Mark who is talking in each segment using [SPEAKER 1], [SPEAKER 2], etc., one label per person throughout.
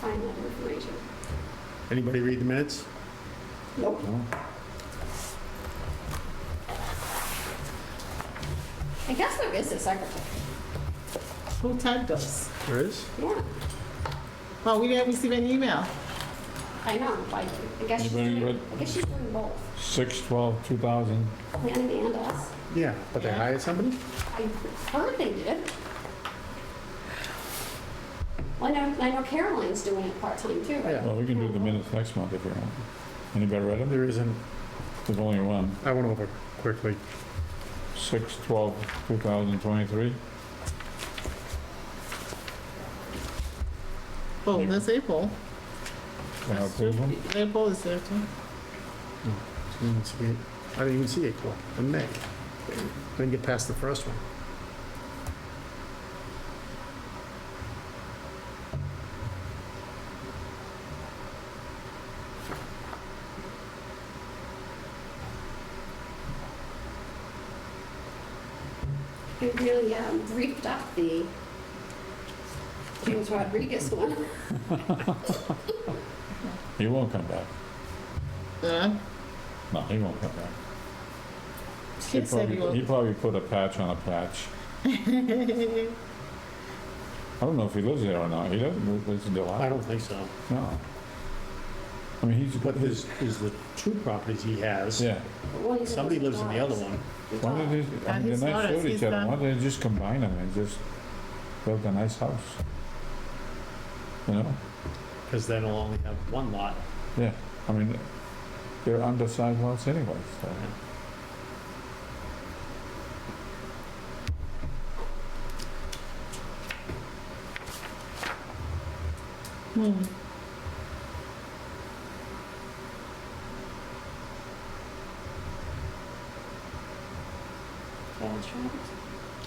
[SPEAKER 1] find that information.
[SPEAKER 2] Anybody read the minutes?
[SPEAKER 1] Nope.
[SPEAKER 2] Oh.
[SPEAKER 1] I guess there is a secretary.
[SPEAKER 3] Who tagged us?
[SPEAKER 2] There is?
[SPEAKER 1] Yeah,
[SPEAKER 3] Well, we didn't receive an email.
[SPEAKER 1] I know, like, I guess she's
[SPEAKER 4] Anybody
[SPEAKER 1] doing,
[SPEAKER 4] read-
[SPEAKER 1] I guess she's doing both,
[SPEAKER 4] Six, twelve, two thousand.
[SPEAKER 1] Lanning and us.
[SPEAKER 2] Yeah, but they hired somebody?
[SPEAKER 1] I heard they did. Well, I know, I know Caroline's doing it part-time too, right?
[SPEAKER 2] Oh, Yeah,
[SPEAKER 4] Well, we can do the minutes next month if you want. Anybody read them?
[SPEAKER 2] there isn't.
[SPEAKER 4] There's only one.
[SPEAKER 2] I went over quickly.
[SPEAKER 4] Six, twelve, two thousand twenty-three.
[SPEAKER 3] Oh, that's April.
[SPEAKER 4] Can I approve them?
[SPEAKER 3] April is there too.
[SPEAKER 2] Didn't even see it. I didn't even see April and May. Didn't get past the first one.
[SPEAKER 1] It really um, briefed up the James Rodriguez one.
[SPEAKER 4] He won't come back.
[SPEAKER 3] Yeah.
[SPEAKER 4] No, he won't come back. He
[SPEAKER 3] She said
[SPEAKER 4] probably, he
[SPEAKER 3] you
[SPEAKER 4] probably put a patch on a patch. I don't know if he lives there or not. He doesn't live in
[SPEAKER 2] I
[SPEAKER 4] Delaware.
[SPEAKER 2] don't think so.
[SPEAKER 4] No. I mean, he's.
[SPEAKER 2] But there's, is the two properties he has.
[SPEAKER 4] Yeah.
[SPEAKER 1] Well, he's
[SPEAKER 2] Somebody lives in the other one.
[SPEAKER 4] Why don't they, I mean,
[SPEAKER 3] he's
[SPEAKER 4] they're
[SPEAKER 3] not
[SPEAKER 4] not
[SPEAKER 3] a-
[SPEAKER 4] showed each
[SPEAKER 3] he's
[SPEAKER 4] other,
[SPEAKER 3] not-
[SPEAKER 4] why don't they just combine them and just build a nice house? You know,
[SPEAKER 2] Because then he'll only have one lot.
[SPEAKER 4] yeah, I mean, they're undersized lots anyway, so.
[SPEAKER 1] Chaos Trials?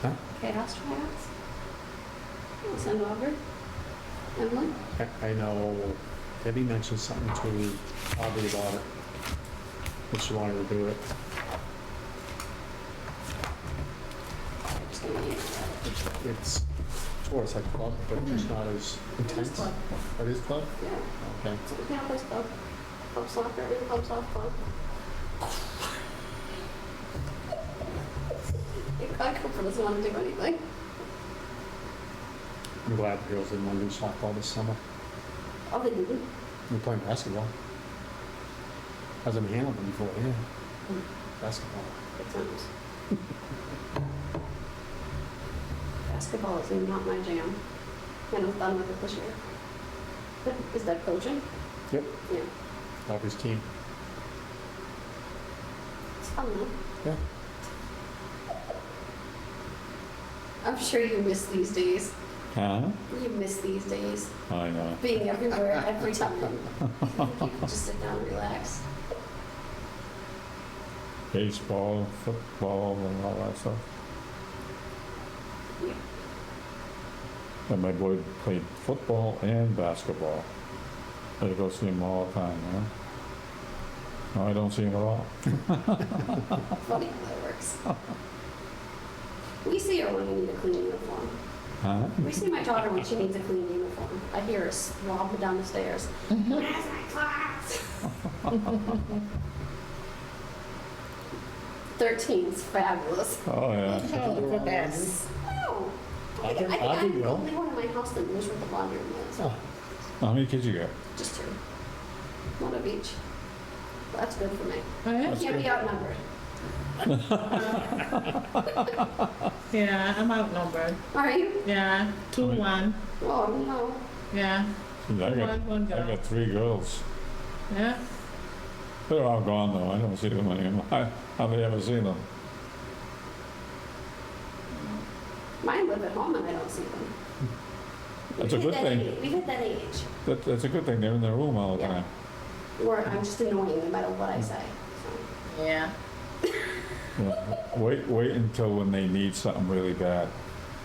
[SPEAKER 2] Huh?
[SPEAKER 1] Chaos Trials? It's in Auburn. Emily?
[SPEAKER 2] I- I know Debbie mentioned something to Aubrey about it. That she wanted to do it.
[SPEAKER 1] I just don't need it.
[SPEAKER 2] It's towards like club, but it's not as intense.
[SPEAKER 1] club.
[SPEAKER 2] It is club?
[SPEAKER 1] Yeah,
[SPEAKER 2] Okay.
[SPEAKER 1] it's a campus club, club soccer, and club softball. I Cooper doesn't want to do anything.
[SPEAKER 2] I'm glad the girls didn't want to do softball this summer.
[SPEAKER 1] Oh, they didn't.
[SPEAKER 2] We're playing basketball. Hasn't been handled before, yeah. Basketball.
[SPEAKER 1] Good times. Basketball is not my jam. And I'm done with it this year. But Is that coaching?
[SPEAKER 2] Yep.
[SPEAKER 1] Yeah.
[SPEAKER 2] Aubrey's team.
[SPEAKER 1] It's fun though.
[SPEAKER 2] Yeah.
[SPEAKER 1] I'm sure you miss these days.
[SPEAKER 4] Huh?
[SPEAKER 1] You miss these days.
[SPEAKER 4] I know.
[SPEAKER 1] Being everywhere, every time. You can't just sit down and relax.
[SPEAKER 4] Baseball, football, and all that stuff.
[SPEAKER 1] Yeah.
[SPEAKER 4] And my boy played football and basketball. I go see him all the time, you know? No, I don't see him at all.
[SPEAKER 1] Funny how that works. We see her when we need a clean uniform.
[SPEAKER 4] Huh?
[SPEAKER 1] We see my daughter when she needs a clean uniform. I hear her slobbing down the stairs. Where's my class? Thirteen's fabulous.
[SPEAKER 4] Oh, yeah.
[SPEAKER 3] Oh, the best.
[SPEAKER 1] Oh, I
[SPEAKER 2] Audrey-
[SPEAKER 1] think I think
[SPEAKER 2] Audrey
[SPEAKER 1] I'm the
[SPEAKER 2] will.
[SPEAKER 1] only one in my house that knows where the laundry room is.
[SPEAKER 2] Oh,
[SPEAKER 4] How many kids you got?
[SPEAKER 1] Just two. One of each. That's good for me.
[SPEAKER 3] Alright.
[SPEAKER 1] Can't be outnumbered.
[SPEAKER 3] Yeah, I'm outnumbered.
[SPEAKER 1] Are you?
[SPEAKER 3] Yeah, two,
[SPEAKER 4] Alright.
[SPEAKER 3] one.
[SPEAKER 1] Oh, no.
[SPEAKER 3] Yeah,
[SPEAKER 4] I got,
[SPEAKER 3] one, one
[SPEAKER 4] I
[SPEAKER 3] girl.
[SPEAKER 4] got three girls.
[SPEAKER 3] Yeah.
[SPEAKER 4] They're all gone though. I don't see them anymore. I hardly ever see them.
[SPEAKER 1] Mine live at home and I don't see them.
[SPEAKER 4] That's a
[SPEAKER 1] We hit
[SPEAKER 4] good
[SPEAKER 1] that
[SPEAKER 4] thing.
[SPEAKER 1] age- We hit that age.
[SPEAKER 4] That, that's a good thing. They're in their room all the
[SPEAKER 1] Yeah.
[SPEAKER 4] time.
[SPEAKER 1] Or I'm just annoying no matter what I say. so.
[SPEAKER 3] Yeah.
[SPEAKER 4] Yeah. Wait, wait until when they need something really bad.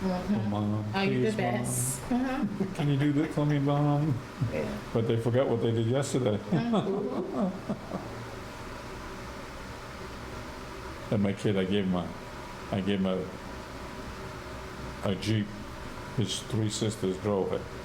[SPEAKER 3] Mhm.
[SPEAKER 4] Mom,
[SPEAKER 3] Are you the
[SPEAKER 4] Mm-hmm. please, Mom.
[SPEAKER 3] best? Uh-huh.
[SPEAKER 4] Can you do this for me, mom?
[SPEAKER 3] Yeah.
[SPEAKER 4] But they forgot what they did yesterday.
[SPEAKER 1] Mhm.
[SPEAKER 4] And my kid, I gave him a, I gave him a, a Jeep. His three sisters drove it.